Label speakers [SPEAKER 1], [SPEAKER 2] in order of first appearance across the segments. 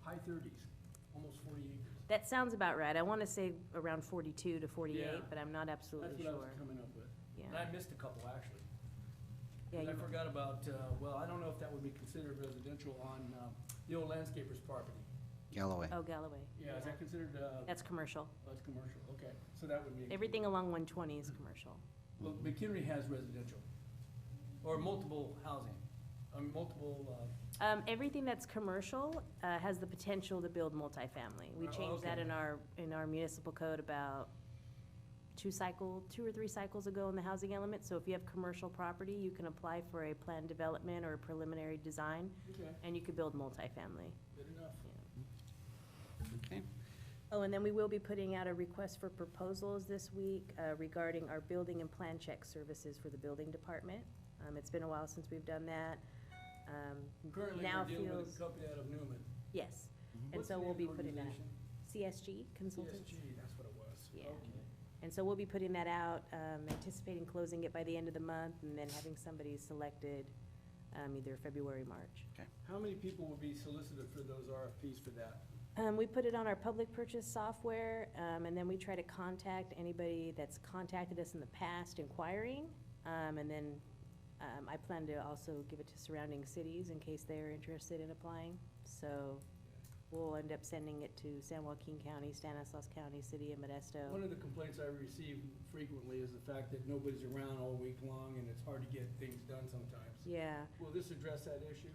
[SPEAKER 1] high thirties, almost forty acres.
[SPEAKER 2] That sounds about right. I want to say around 42 to
[SPEAKER 1] Yeah.
[SPEAKER 2] 48, but I'm not
[SPEAKER 1] That's
[SPEAKER 2] absolutely
[SPEAKER 1] what I was
[SPEAKER 2] sure.
[SPEAKER 1] coming up with.
[SPEAKER 2] Yeah,
[SPEAKER 1] And I missed a couple, actually.
[SPEAKER 2] yeah,
[SPEAKER 1] I
[SPEAKER 2] you-
[SPEAKER 1] forgot about, uh, well, I don't know if that would be considered residential on, uh, the old landscaper's property.
[SPEAKER 3] Galloway.
[SPEAKER 2] oh, Galloway.
[SPEAKER 1] Yeah, is that considered, uh,
[SPEAKER 2] That's commercial.
[SPEAKER 1] that's commercial, okay, so that would be.
[SPEAKER 2] Everything along 120 is commercial.
[SPEAKER 1] Well, McHenry has residential, or multiple housing, um, multiple, uh,
[SPEAKER 2] Um, Everything that's commercial uh, has the potential to build multifamily. We
[SPEAKER 1] Oh,
[SPEAKER 2] changed that
[SPEAKER 1] okay.
[SPEAKER 2] in our, in our municipal code about two cycle, two or three cycles ago in the housing element. So if you have commercial property, you can apply for a planned development or a preliminary design,
[SPEAKER 1] okay,
[SPEAKER 2] and you could build multifamily.
[SPEAKER 1] good enough.
[SPEAKER 3] Okay.
[SPEAKER 2] Oh, and then we will be putting out a request for proposals this week uh, regarding our building and plan check services for the building department. Um, It's been a while since we've done that. Um,
[SPEAKER 1] Currently,
[SPEAKER 2] Now
[SPEAKER 1] we're dealing with
[SPEAKER 2] feels-
[SPEAKER 1] a company out of Newman.
[SPEAKER 2] Yes, and
[SPEAKER 1] What's
[SPEAKER 2] so
[SPEAKER 1] the
[SPEAKER 2] we'll
[SPEAKER 1] name
[SPEAKER 2] be
[SPEAKER 1] of the
[SPEAKER 2] putting that,
[SPEAKER 1] organization?
[SPEAKER 2] CSG Consultants.
[SPEAKER 1] CSG, that's what it was.
[SPEAKER 2] Yeah.
[SPEAKER 1] Okay.
[SPEAKER 2] And so we'll be putting that out, um, anticipating closing it by the end of the month and then having somebody selected um, either February, March.
[SPEAKER 1] How many people will be solicited for those RFPs for that?
[SPEAKER 2] Um, we put it on our public purchase software, um, and then we try to contact anybody that's contacted us in the past inquiring. Um, and then, um, I plan to also give it to surrounding cities in case they're interested in applying. So we'll end up sending it to San Joaquin County, Stanislaus County, City of Modesto.
[SPEAKER 1] One of the complaints I receive frequently is the fact that nobody's around all week long and it's hard to get things done sometimes.
[SPEAKER 2] Yeah,
[SPEAKER 1] Will this address that issue?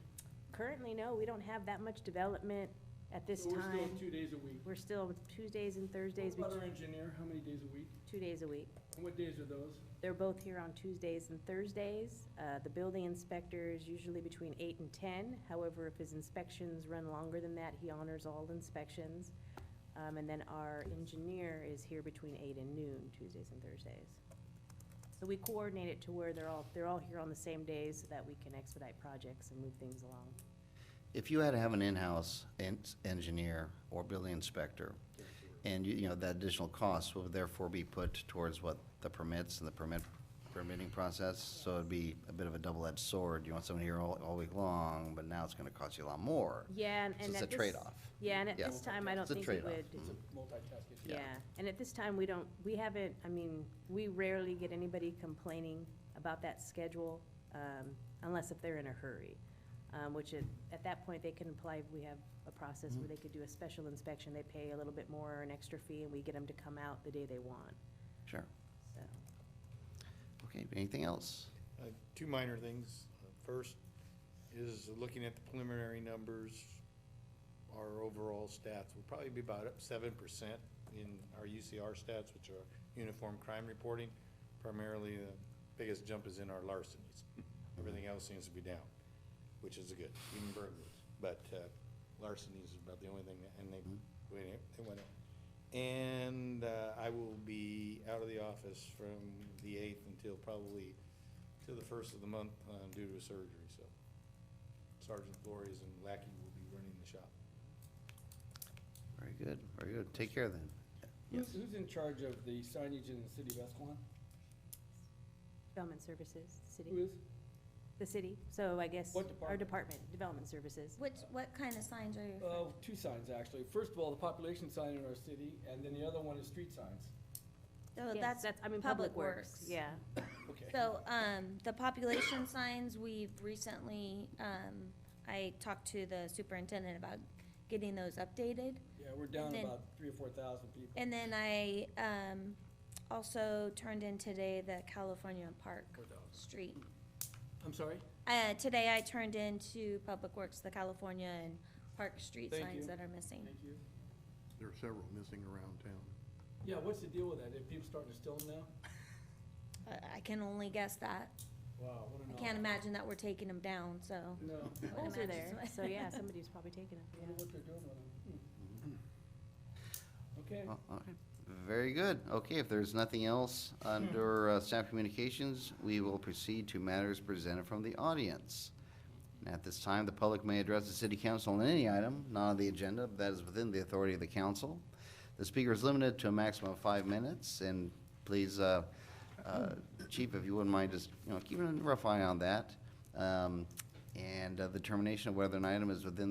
[SPEAKER 2] currently, no, we don't have that much development at this
[SPEAKER 1] So we're still
[SPEAKER 2] time.
[SPEAKER 1] two days a week.
[SPEAKER 2] We're still Tuesdays and Thursdays,
[SPEAKER 1] What about
[SPEAKER 2] between-
[SPEAKER 1] our engineer, how many days a week?
[SPEAKER 2] two days a week.
[SPEAKER 1] And what days are those?
[SPEAKER 2] They're both here on Tuesdays and Thursdays. Uh, The building inspector is usually between eight and ten. However, if his inspections run longer than that, he honors all inspections. Um, And then our engineer is here between eight and noon, Tuesdays and Thursdays. So we coordinate it to where they're all, they're all here on the same days so that we can expedite projects and move things along.
[SPEAKER 3] If you had to have an in-house en- engineer or building inspector, and you, you know, that additional cost would therefore be put towards what the permits and the permit, permitting process, so it'd be a bit of a double-edged sword. You want someone here all, all week long, but now it's gonna cost you a lot more.
[SPEAKER 2] Yeah, and
[SPEAKER 3] So
[SPEAKER 2] and
[SPEAKER 3] it's
[SPEAKER 2] at
[SPEAKER 3] a
[SPEAKER 2] this-
[SPEAKER 3] trade-off.
[SPEAKER 2] Yeah, and at
[SPEAKER 3] Yeah.
[SPEAKER 2] this time, I don't
[SPEAKER 3] It's a
[SPEAKER 2] think we
[SPEAKER 3] trade-off.
[SPEAKER 2] would.
[SPEAKER 1] It's a multitasking.
[SPEAKER 2] Yeah, and at this time, we don't, we haven't, I mean, we rarely get anybody complaining about that schedule, um, unless if they're in a hurry. Um, which at, at that point, they can apply, we have a process
[SPEAKER 1] Mm-hmm.
[SPEAKER 2] where they could do a special inspection, they pay a little bit more, or an extra fee, and we get them to come out the day they want,
[SPEAKER 3] Sure.
[SPEAKER 2] so.
[SPEAKER 3] Okay, anything else?
[SPEAKER 4] Uh, Two minor things. Uh, First is looking at the preliminary numbers, our overall stats will probably be about up seven percent in our UCR stats, which are uniform crime reporting. Primarily, the biggest jump is in our larcenies. Everything else seems to be down, which is good, even burglaries. But uh, larcenies is about the only thing, that- and they, went up- they went up. And uh, I will be out of the office from the eighth until probably to the first of the month uh, due to a surgery, so Sergeant Flores and Lackey will be running the shop.
[SPEAKER 3] Very good, very good. Take care then.
[SPEAKER 1] Who's, who's in charge of the signage in the city of Escalon?
[SPEAKER 2] Development services,
[SPEAKER 1] Who
[SPEAKER 2] city,
[SPEAKER 1] is?
[SPEAKER 2] the city, so I guess.
[SPEAKER 1] Mm-hmm. What
[SPEAKER 2] Our
[SPEAKER 1] department?
[SPEAKER 2] department, development services.
[SPEAKER 5] Which, what kind of signs are you?
[SPEAKER 1] Uh, two signs, actually. First of all, the population sign in our city, and then the other one is street signs.
[SPEAKER 5] So
[SPEAKER 2] Yes,
[SPEAKER 5] that's,
[SPEAKER 2] I mean,
[SPEAKER 5] Public Works.
[SPEAKER 2] Yeah,
[SPEAKER 1] Okay.
[SPEAKER 5] so, um, the population signs, we've recently, um, I talked to the superintendent about getting those updated.
[SPEAKER 1] Yeah, we're down
[SPEAKER 5] And then-
[SPEAKER 1] about three or four thousand people.
[SPEAKER 5] And then I, um, also turned in today the California Park Street.
[SPEAKER 1] I'm sorry?
[SPEAKER 5] Uh, today I turned into Public Works, the California and Park Street
[SPEAKER 1] Thank you.
[SPEAKER 5] signs that are missing.
[SPEAKER 1] Thank you.
[SPEAKER 6] There are several missing around town.
[SPEAKER 1] Yeah, what's the deal with that? Are people starting to steal them now?
[SPEAKER 5] I, I can only guess that.
[SPEAKER 1] Wow, what an.
[SPEAKER 5] I can't imagine that we're taking them down, so.
[SPEAKER 1] No.
[SPEAKER 5] I would
[SPEAKER 2] poles are
[SPEAKER 5] imagine
[SPEAKER 2] there,
[SPEAKER 5] so.
[SPEAKER 2] so yeah, somebody's probably taking them,
[SPEAKER 1] Wonder
[SPEAKER 2] yeah.
[SPEAKER 1] what they're doing with
[SPEAKER 6] Mm-hmm.
[SPEAKER 1] them.
[SPEAKER 6] Uh,
[SPEAKER 1] Hmm.
[SPEAKER 3] Oh,
[SPEAKER 1] Okay,
[SPEAKER 3] all right. Very good. Okay, if there's nothing else under uh, staff communications, we will proceed to matters presented from the audience. And At this time, the public may address the city council on any item not on the agenda but that is within the authority of the council. The speaker is limited to a maximum of five minutes, and please, uh, uh, chief, if you wouldn't mind just, you know, keeping a rough eye on that. Um, And uh, the determination of whether an item is within